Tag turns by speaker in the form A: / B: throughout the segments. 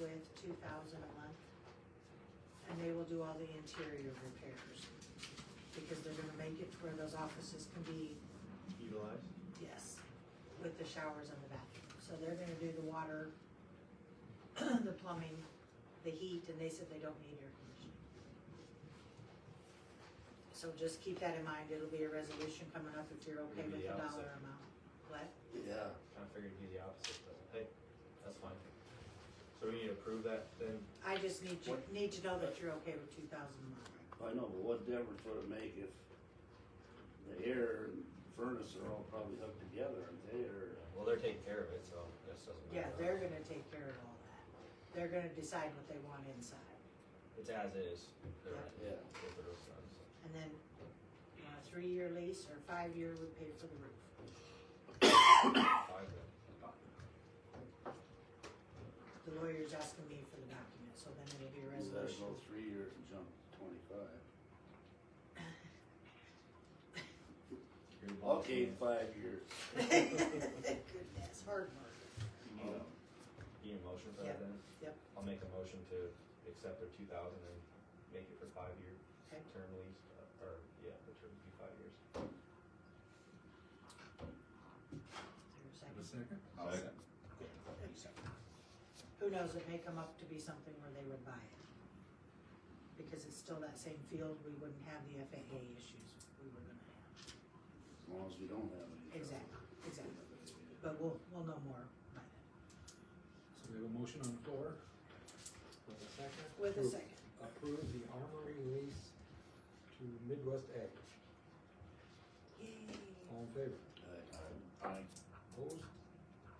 A: with two thousand a month. And they will do all the interior repairs, because they're gonna make it to where those offices can be,
B: utilized.
A: yes, with the showers and the bathroom. So they're gonna do the water, the plumbing, the heat, and they said they don't need air conditioning. So just keep that in mind, it'll be a resolution coming up if you're okay with
B: Maybe
A: the
B: the
A: dollar
B: opposite.
A: amount. What?
C: Yeah,
B: Kind of figured you'd do the opposite, but hey, that's fine. So we need to approve that then?
A: I just need to,
C: What?
A: need to know that you're okay with two thousand a month.
C: I know, but what difference would it make if the air and furnace are all probably hooked together, aren't they, or?
B: Well, they're taking care of it, so this doesn't
A: Yeah,
B: matter.
A: they're gonna take care of all that. They're gonna decide what they want inside.
B: It's as is. They're
A: Yeah.
B: right.
C: Yeah.
B: With the roof on, so.
A: And then, you know, a three-year lease or five-year would pay for the roof.
B: Five then.
A: The lawyer's asking me for the document, so then it'll be a
C: Is that
A: resolution.
C: go three years and jump to twenty-five?
B: You're the boss,
C: Okay,
B: man.
C: five years.
A: Goodness, hard work.
B: You need a- you need a motion for that
A: Yeah.
B: then?
A: Yep.
B: I'll make a motion to accept their two thousand and make it for five year
A: Okay.
B: term lease, uh, or, yeah, the term would be five years.
A: Is there a
D: The
A: second?
D: second?
E: I'll second.
A: Who knows, it may come up to be something where they would buy it. Because it's still that same field, we wouldn't have the FAA issues we were gonna have.
C: As long as we don't have any.
A: Exactly, exactly. But we'll, we'll know more by then.
D: So we have a motion on the floor with a second.
A: With a
D: to
A: second.
D: Approve the armory lease to Midwest Ag.
A: Yay.
D: All in favor? Opposed?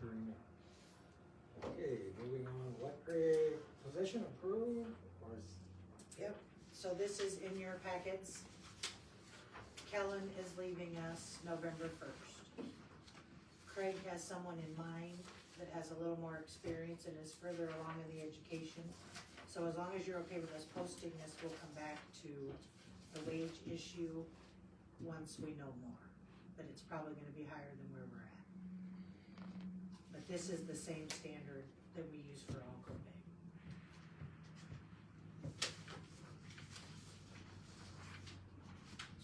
D: Hearing none. Okay, moving on, electric position approved or is?
A: Yep, so this is in your packets. Kellen is leaving us November first. Craig has someone in mind that has a little more experience and is further along in the education. So as long as you're okay with us posting this, we'll come back to the wage issue once we know more. But it's probably gonna be higher than where we're at. But this is the same standard that we use for all Quebec.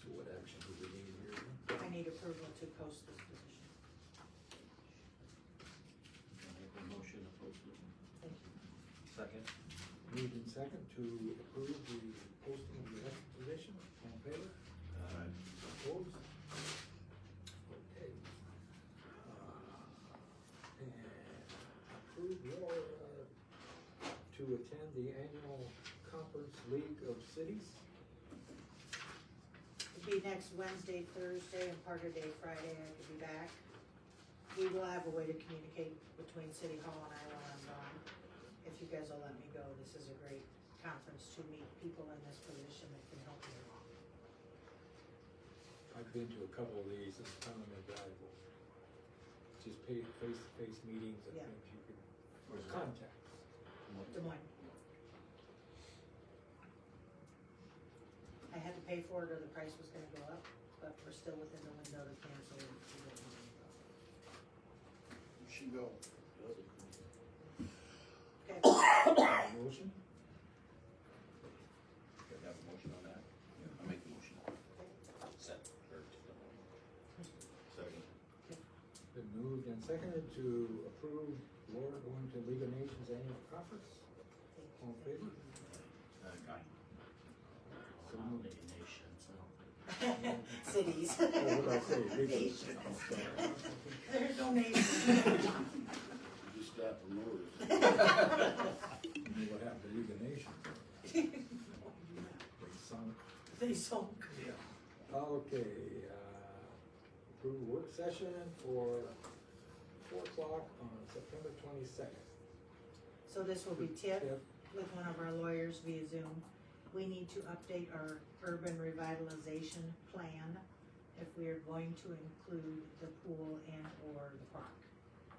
D: So what action do we need here?
A: I need approval to post this position.
E: motion to post it.
A: Thank you.
B: Second?
D: Moved in second to approve the posting of the electric position. All in favor?
C: Uh,
D: Opposed? Okay. Uh, And approve your, uh, to attend the annual conference League of Cities.
A: It'd be next Wednesday, Thursday, and part of day Friday, I could be back. We will have a way to communicate between City Hall and I while I'm gone. If you guys will let me go, this is a great conference to meet people in this position that can help you along.
D: I've been to a couple of these, it's kind of invaluable. Just pay, face-to-face meetings and
A: Yeah.
D: things you can, contact.
A: Des Moines. I had to pay for it or the price was gonna go up, but we're still within the window to cancel it. if you don't wanna go.
C: She go.
A: Okay,
D: Motion?
E: Could I have a motion on that? I'll make the motion. Second. Second.
D: Been moved and seconded to approve Laura going to League of Nations Annual Conference. All in favor?
E: Uh,
D: So moved.
A: Cities.
D: What did I say?
A: Nations.
D: Regions.
A: There's no nations.
C: Just got promoted.
D: You know what happened to League of Nations? They sunk.
A: They sunk.
D: Okay, uh, approve work session for four o'clock on September twenty-second.
A: So this will be TIP with one of our lawyers via Zoom. We need to update our urban revitalization plan if we are going to include the pool and or the park.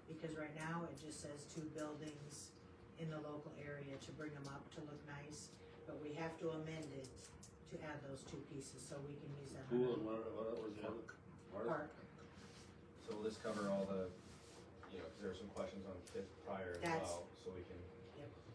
A: Because right now it just says two buildings in the local area to bring them up to look nice, but we have to amend it to add those two pieces so we can use that.
C: Pool and what, what was the other?
A: Park,
B: So will this cover all the, you know, 'cause there were some questions on TIF prior as
A: That's-
B: well, so we can